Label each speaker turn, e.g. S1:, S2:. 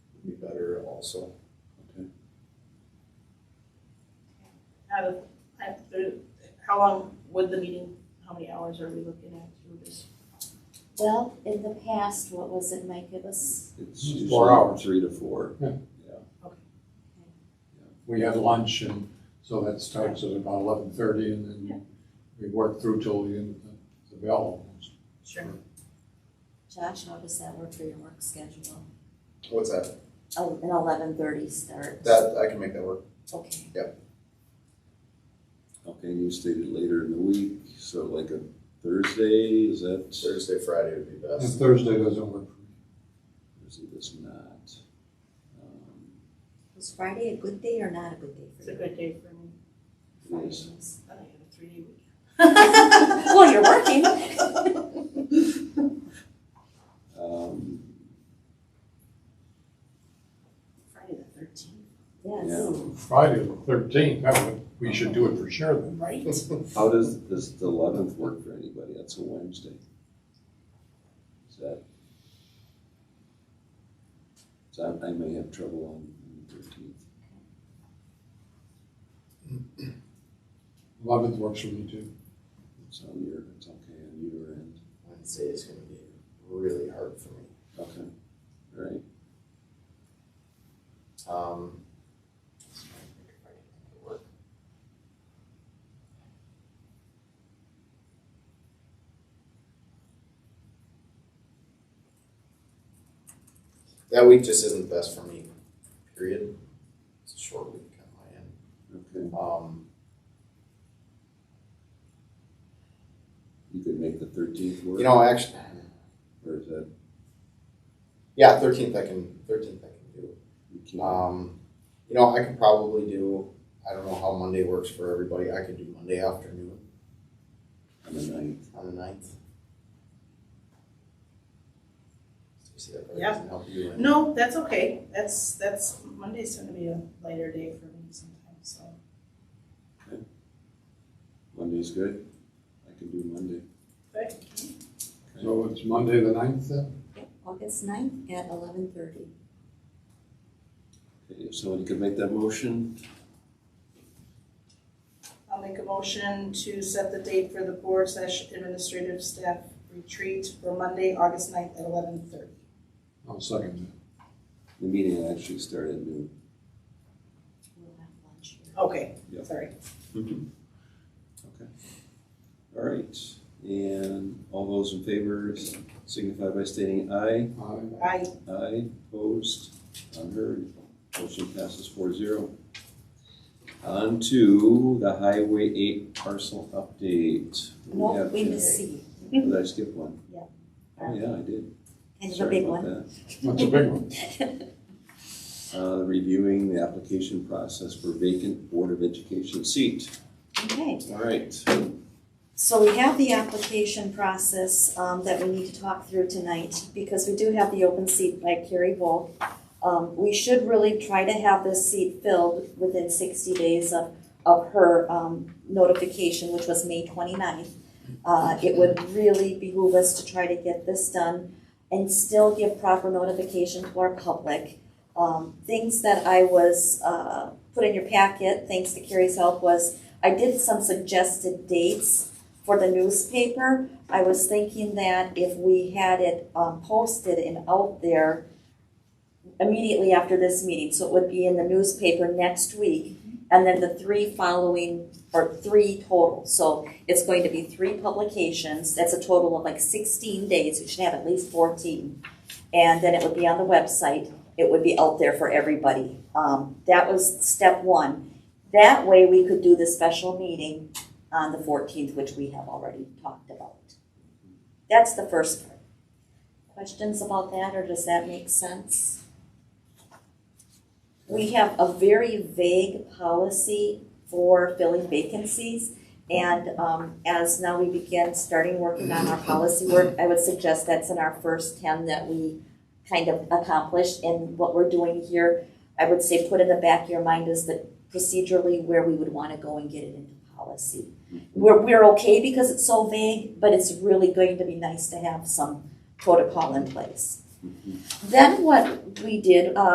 S1: also.
S2: Out of, I- there- how long would the meeting, how many hours are we looking at through this?
S3: Well, in the past, what was it, Mike? It was,
S1: It's
S4: Four
S1: usually
S4: hours.
S1: Three to four.
S4: we had lunch and so that starts at about eleven thirty and
S2: Yeah.
S4: then we work through till the end of the, the bell almost.
S2: Sure.
S3: Josh, how does that work for your work schedule?
S5: What's that?
S3: Oh, an eleven thirty start.
S5: That, I can make that work.
S3: Okay,
S1: Okay, you stated later in the week, so like a Thursday, is that?
S5: Thursday, Friday would be
S4: And
S5: best.
S4: Thursday doesn't work for me.
S1: Thursday does not. Um,
S3: was Friday a good day or not a good day
S2: It's
S3: for
S2: a
S3: you?
S2: good day for me.
S1: It is.
S2: I don't have a three day week.
S3: Well, you're working.
S1: Um,
S2: Friday the thirteenth.
S3: Yes.
S1: Yeah.
S4: Friday the thirteenth, that would, we should do it for sure then.
S3: Right.
S1: how does, does the eleventh work for anybody? That's a Wednesday. Is that? So I, I may have trouble on on the thirteenth.
S4: Eleventh works for me too.
S1: It's on your, it's okay on your end.
S5: Wednesday is gonna be really hard for me.
S1: Okay, all right.
S5: Um. That week just isn't best for me, period. It's a short week on my end.
S1: Okay,
S5: Um,
S1: you could make the thirteenth work?
S5: you know, actually,
S1: Or is that,
S5: yeah, thirteenth I can, thirteenth I can do.
S1: you can't?
S5: Um, you know, I could probably do, I don't know how Monday works for everybody, I could do Monday afternoon
S1: On the ninth,
S5: on the ninth. Stacy, that probably
S2: Yeah.
S5: doesn't help you. any.
S2: No, that's okay. That's, that's, Monday's gonna be a lighter day for me sometimes, so.
S1: Monday's good? I can do Monday.
S2: Okay.
S4: So it's Monday the ninth then?
S3: August ninth at eleven thirty.
S1: Okay, if somebody could make that motion,
S2: I'll make a motion to set the date for the board slash administrative staff retreat for Monday, August ninth at eleven thirty.
S4: I'll second
S1: the meeting will actually start at noon.
S3: We'll have lunch here.
S2: Okay,
S1: Yep.
S2: sorry.
S1: Okay. All right, and all those in favor signify by stating aye.
S4: that. Aye.
S2: I,
S1: Aye, opposed, unheard. Motion passes four zero. On to the Highway eight parcel update. What do
S3: No,
S1: have
S3: we
S1: today?
S3: miss C.
S1: Did I skip one?
S2: Yeah.
S1: Oh, yeah, I did.
S3: And the
S1: Sorry
S3: big
S1: about
S3: one.
S1: that.
S4: That's a big one.
S1: Uh, reviewing the application process for vacant Board of Education seat.
S3: Okay.
S1: All right.
S3: So we have the application process um, that we need to talk through tonight because we do have the open seat by Carrie Volk. Um, We should really try to have this seat filled within 60 days of, of her um, notification, which was May 29th. Uh, It would really behoove us to try to get this done and still give proper notification to our public. Um, Things that I was, uh, put in your packet, thanks to Carrie's help, was I did some suggested dates for the newspaper, I was thinking that if we had it um, posted and out there immediately after this meeting, so it would be in the newspaper next week, and then the three following, or three total, so it's going to be three publications, that's a total of like sixteen days, we should have at least fourteen. And then it would be on the website, it would be out there for everybody. Um, That was step one. That way, we could do the special meeting on the fourteenth, which we have already talked about. That's the first part. Questions about that, or does that make sense? We have a very vague policy for filling vacancies. And um, as now we begin starting working on our policy work, I would suggest that's in our first ten that we kind of accomplished. And what we're doing here, I would say put in the back of your mind is that procedurally where we would want to go and get it into policy we're, we're okay because it's so vague, but it's really going to be nice to have some protocol in place. Then what we did, uh,